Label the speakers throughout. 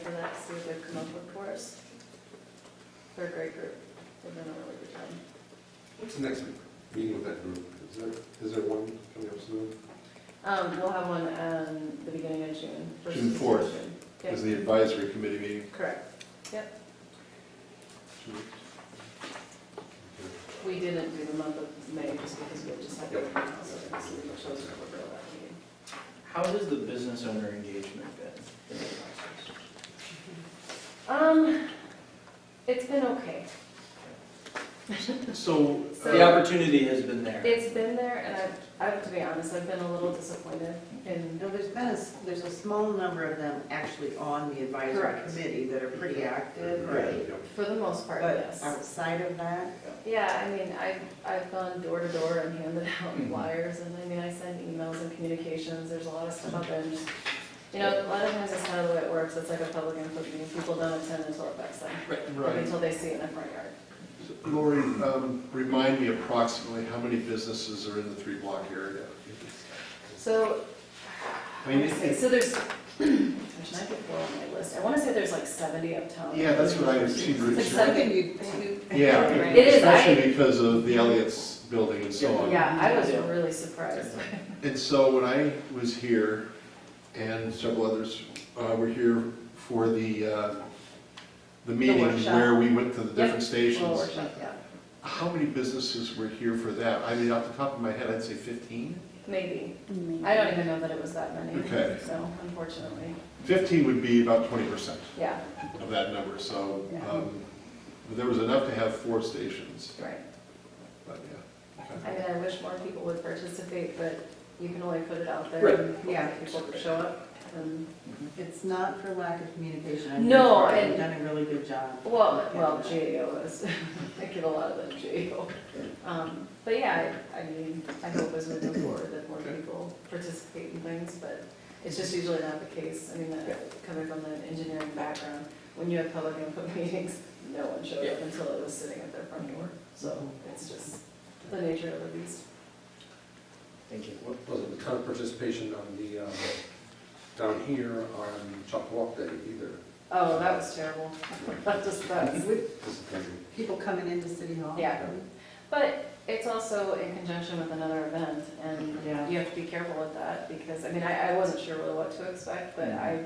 Speaker 1: for that, see what they've come up with for us. They're a great group, they've done a really good job.
Speaker 2: What's the next meeting with that group? Is there, is there one coming up soon?
Speaker 1: Um, we'll have one, um, the beginning of June. first
Speaker 3: June fourth.
Speaker 1: of June. Yep,
Speaker 3: Is the advisory committee meeting?
Speaker 1: Correct.
Speaker 2: Two weeks?
Speaker 1: We didn't do the month of May just because we had just had.
Speaker 2: Yep.
Speaker 1: everything else, so we chose to forego that meeting.
Speaker 4: How has the business owner engagement been in the process?
Speaker 1: Um, it's been okay.
Speaker 4: So uh,
Speaker 1: So-
Speaker 4: the opportunity has been there.
Speaker 1: It's been there, and I, I have to be honest, I've been a little disappointed in,
Speaker 5: No, there's been a, s- there's a small number of them actually on the advisory
Speaker 1: Correct.
Speaker 5: committee that are pretty active,
Speaker 2: Okay.
Speaker 5: right?
Speaker 2: Yep.
Speaker 1: for the most part,
Speaker 5: But
Speaker 1: yes.
Speaker 5: outside of that,
Speaker 1: Yeah, I mean, I've, I've gone door to door and handed out
Speaker 3: Mm-hmm.
Speaker 4: Mhm.
Speaker 1: flyers, and I mean, I send emails and communications, there's a lot of stuff out there. and just- You know, a lot of times that's not the way it works, it's like a public input meeting, people don't attend until it affects them, or until they see it in their front yard.
Speaker 3: Lori, um, remind me approximately how many businesses are in the three block area?
Speaker 1: So,
Speaker 3: I mean, it-
Speaker 1: so there's, gosh, and I could go on my list, I wanna say there's like seventy uptown.
Speaker 3: Yeah, that's what I see.
Speaker 1: Like
Speaker 3: Rich.
Speaker 1: seven-
Speaker 5: something you,
Speaker 3: Yeah,
Speaker 1: It is, I-
Speaker 3: especially because of the Elliott's building and so on.
Speaker 1: Yeah, I was really surprised.
Speaker 3: And so when I was here, and several others uh, were here for the, uh, the meetings
Speaker 1: workshop.
Speaker 3: where we went to the different
Speaker 1: Little
Speaker 3: stations,
Speaker 1: workshop, yeah,
Speaker 3: how many businesses were here for that? I mean, off the top of my head, I'd say 15?
Speaker 1: maybe. I don't even know that it was that many,
Speaker 3: Okay.
Speaker 1: so unfortunately,
Speaker 3: 15 would be about 20%
Speaker 1: yeah,
Speaker 3: of that number, so
Speaker 1: Yeah.
Speaker 3: um, there was enough to have four stations,
Speaker 1: right.
Speaker 3: but yeah. okay.
Speaker 1: I mean, I wish more people would participate, but you can only put it out there.
Speaker 4: Right.
Speaker 1: and hope
Speaker 5: Yeah.
Speaker 1: that People show up. Um, and-
Speaker 5: it's not for lack of communication. I'm
Speaker 1: No,
Speaker 5: sure
Speaker 1: and-
Speaker 5: You've done a really good job.
Speaker 1: Well, well, GAO is, I give a lot of them GAO. Um, But yeah, I I mean, I hope as we move forward that more people participate in things, but it's just usually not the case. I mean, uh, coming from an engineering background, when you have public input meetings, no one showed up
Speaker 4: Yeah. Mm-hmm.
Speaker 1: until it was sitting at their front door. So it's just the nature of the beast.
Speaker 4: Thank you.
Speaker 2: What was it, the kind of participation on the, um, down here on Chalk Walk Day either?
Speaker 1: Oh, that was terrible. That just, that was-
Speaker 2: Disappointing.
Speaker 5: People coming into City Hall.
Speaker 1: Yeah. But it's also in conjunction with another event, and
Speaker 5: Yeah.
Speaker 1: you have to be careful with that, because, I mean, I, I wasn't sure really what to expect, but I,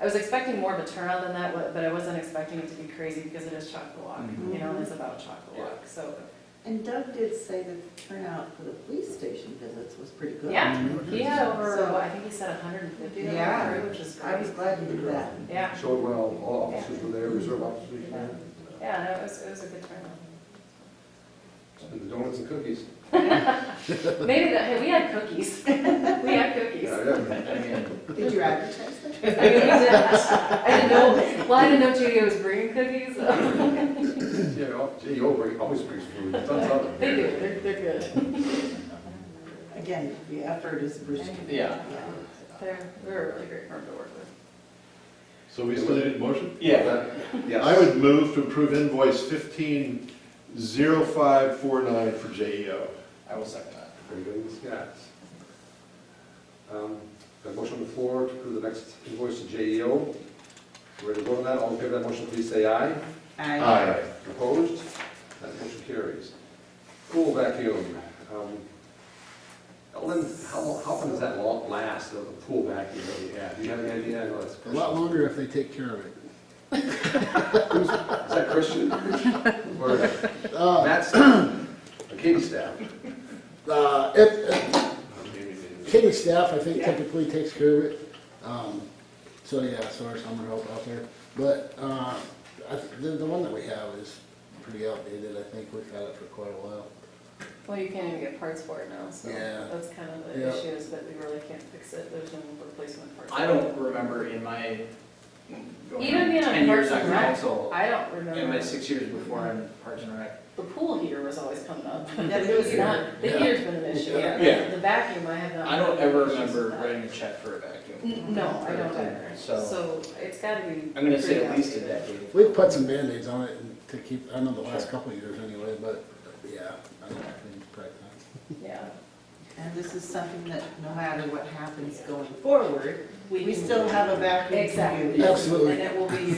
Speaker 1: I was expecting more of a turnout than that, but- but I wasn't expecting it to be crazy, because it is Chocolate
Speaker 4: Mhm.
Speaker 1: you know, and it's about Chocolate, so,
Speaker 5: And Doug did say that the turnout for the police station visits was pretty good.
Speaker 1: yeah.
Speaker 4: Mm-hmm.
Speaker 1: He had over,
Speaker 5: So-
Speaker 1: what, I think he said hundred and fifty,
Speaker 5: Yeah.
Speaker 1: which is
Speaker 5: I was
Speaker 1: great,
Speaker 5: glad you did that.
Speaker 1: yeah,
Speaker 2: Showed well, all officers were there, reserve officers were there.
Speaker 1: yeah, no, it was, it was a good turnout.
Speaker 2: And the donuts and cookies.
Speaker 1: Maybe that, hey, we had cookies, we had cookies.
Speaker 2: Yeah, yeah.
Speaker 4: I mean,
Speaker 5: Did you advertise that?
Speaker 1: I mean, we did, I didn't know, well, I didn't know JDO was bringing cookies, so.
Speaker 2: Yeah, oh, gee, you always- always brings food. Tons of it.
Speaker 1: They do, they're, they're good.
Speaker 5: Again, the effort is appreciated.
Speaker 4: Yeah.
Speaker 1: They're, they're a really great firm to work with.
Speaker 3: So we still need a motion?
Speaker 4: yeah,
Speaker 2: Yes.
Speaker 3: I would move to approve invoice 150549 for E JEO.
Speaker 4: I will second that.
Speaker 2: Very good, Ms. Gatz. Um, Got a motion on the floor to approve the next invoice to JEO. Ready to vote on that? All in favor of that motion, please say aye.
Speaker 5: I-
Speaker 2: Opposed? That motion carries. Pool vacuum. Um, Ellen, how how often does that la- last, the the pool vacuum that we have? Do you have any idea? I know that's
Speaker 6: A lot longer if they take care of it.
Speaker 2: Is that Christian? Or
Speaker 6: Uh,
Speaker 2: Matt's staff? Or Katie's staff?
Speaker 6: uh, it- it-
Speaker 3: Okay.
Speaker 6: Kitty staff, I think typically takes care of it. Um, So, yeah, so our summer help out there. But uh, I th- the, the one that we have is pretty outdated, I think. We've had it for quite a while.
Speaker 1: Well, you can't even get parts for it now, so
Speaker 6: Yeah.
Speaker 1: that's kind of the
Speaker 6: Yeah.
Speaker 1: issue is that we really can't fix it, there's no replacement parts.
Speaker 4: I don't remember in my, going
Speaker 1: Even
Speaker 4: on
Speaker 1: being on
Speaker 4: ten years
Speaker 1: Parks
Speaker 4: on
Speaker 1: and Rec,
Speaker 4: council,
Speaker 1: I don't
Speaker 4: in my
Speaker 1: remember,
Speaker 4: six years before on Parks and Rec,
Speaker 1: the pool heater was always coming up.
Speaker 5: Yeah,
Speaker 1: It was not, the
Speaker 6: Yeah.
Speaker 1: heater's been an issue,
Speaker 6: Yeah.
Speaker 1: yeah, the vacuum I have not.
Speaker 4: I don't ever
Speaker 1: issues with
Speaker 4: remember
Speaker 1: that.
Speaker 4: writing a check for a vacuum.
Speaker 1: N- No, I don't either,
Speaker 4: So-
Speaker 1: so it's gotta be.
Speaker 4: I'm gonna say
Speaker 1: pretty
Speaker 4: at least a
Speaker 1: outdated.
Speaker 4: decade.
Speaker 6: We've put some Band-Aids on it and to keep, I know the last couple of years anyway, but yeah, I don't think, right now.
Speaker 1: Yeah.
Speaker 5: And this is something that no matter what happens going forward, we still have a vacuum to
Speaker 1: Exactly.
Speaker 5: use.
Speaker 6: Absolutely.
Speaker 1: And it will be